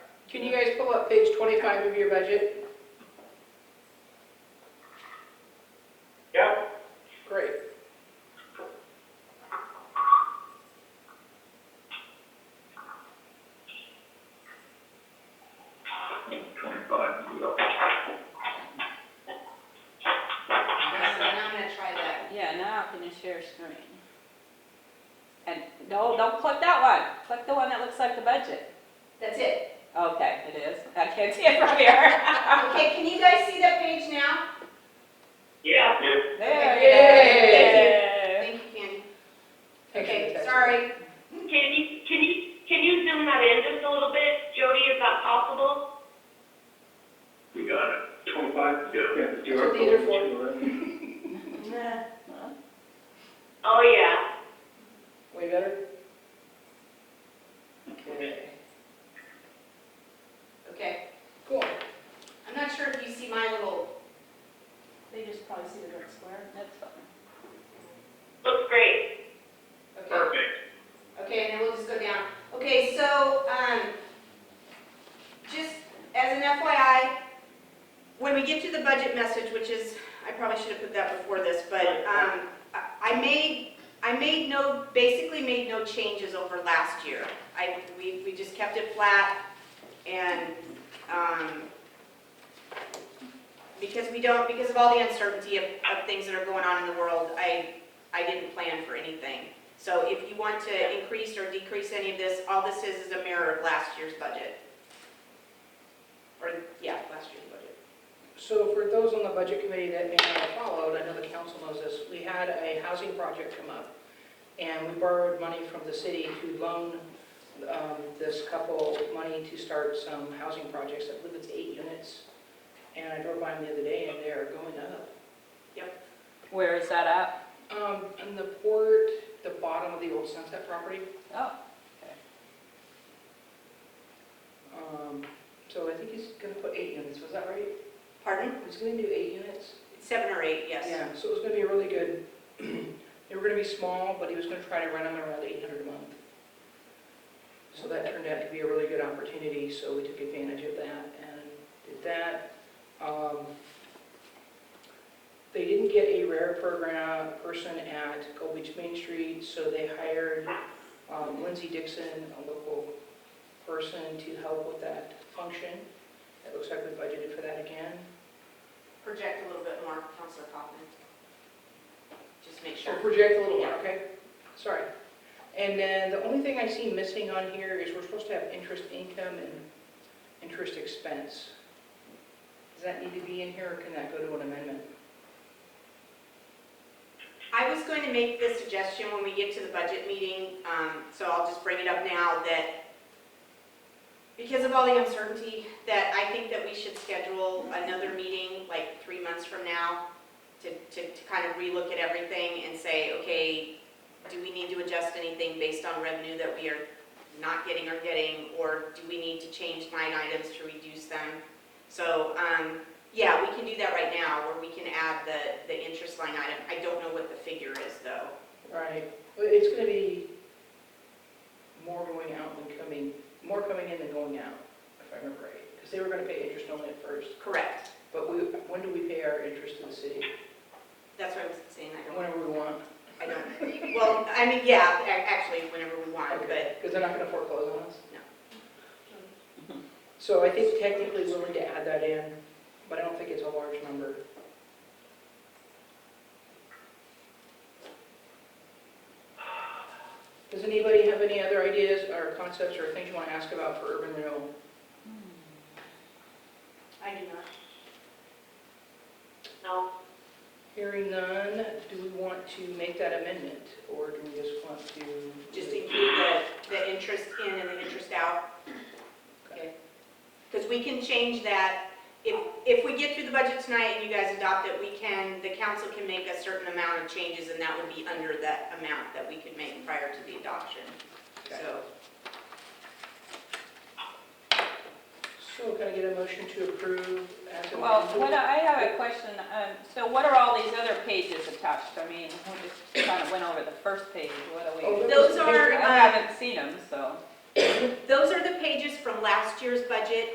Can you guys pull up page 25 of your budget? Yeah, Great. Twenty-five, we are. Okay, so now I'm gonna try that. Yeah, now I can just share screen. And, no, don't click that one, click the one that looks like the budget. That's it. Okay, it is, I can't see it from here. Okay, can you guys see that page now? yeah. There Yay. it is. Thank you, Candy. Thank you, Okay, Tessa. sorry. Can you, can you, can you zoom that in just a little bit, Jody, is that possible? We got it. Twenty-five? Yeah. That's what these are for. Nah. Oh, yeah. Way better? Okay, Okay, cool. I'm not sure if you see my little, They just probably see the red square. That's fine. Looks great. okay, Perfect. okay, and then we'll just go down. Okay, so, um, just as an FYI, when we get to the budget message, which is, I probably should have put that before this, but, um, I I made, I made no, basically made no changes over last year. I, we, we just kept it flat and, um, because we don't, because of all the uncertainty of, of things that are going on in the world, I, I didn't plan for anything. So if you want to increase or decrease any of this, all this is is a mirror of last year's budget. Or, yeah, last year's budget. So for those on the budget committee that may not have followed, I know the council knows this, we had a housing project come up, and we borrowed money from the city to loan um, this couple money to start some housing projects. I believe it's eight units, and I drove by them the other day, and they are going up. Where is that at? Um, In the port, the bottom of the old Sunset property, Oh, um, so I think he's going to put eight units, was that right? Pardon? He's going to do eight units? Seven or eight, yes. Yeah, so it was gonna be really good. They were gonna be small, but he was gonna try to rent them around eight hundred a month. So that turned out to be a really good opportunity, so we took advantage of that and did that. Um, They didn't get a rare program person at Gold Beach Main Street, so they hired um, Lindsay Dixon, a local person, to help with that function. It looks like we budgeted for that again. Project a little bit more, Counselor Kaufman. Just make Or sure. project a little more, okay? Sorry. And then the only thing I see missing on here is we're supposed to have interest income and interest expense. Does that need to be in here, or can that go to an amendment? I was going to make this suggestion when we get to the budget meeting, um, so I'll just bring it up now, that because of all the uncertainty, that I think that we should schedule another meeting, like three months from now, to, to, to kind of relook at everything and say, okay, do we need to adjust anything based on revenue that we are not getting or getting, or do we need to change line items to reduce them? So, um, yeah, we can do that right now, where we can add the, the interest line item. I don't know what the figure is, though. Right. Well, it's gonna be more going out than coming, more coming in than going out, if I remember right. Because they were gonna pay interest only at first, Correct. but we, when do we pay our interest to the city? That's what I was saying, I don't, Whenever we want. I don't, well, I mean, yeah, a- actually, whenever we want, but Because they're not gonna foreclose on us? No. So I think technically we'll need to add that in, but I don't think it's a large number. Does anybody have any other ideas or concepts or things you want to ask about for urban renewal? I do not. No. Hearing none, do we want to make that amendment, or do we just want to? Just include the, the interest in and the interest out. Okay. Because we can change that. If, if we get through the budget tonight and you guys adopt it, we can, the council can make a certain amount of changes, and that would be under that amount that we could make prior to the adoption. Okay. So, So can I get a motion to approve as amended? well, what, I I have a question, um, so what are all these other pages attached? I mean, we just kind of went over the first page, what are Oh, we? there was Those a are- um, I haven't seen them, so. Those are the pages from last year's budget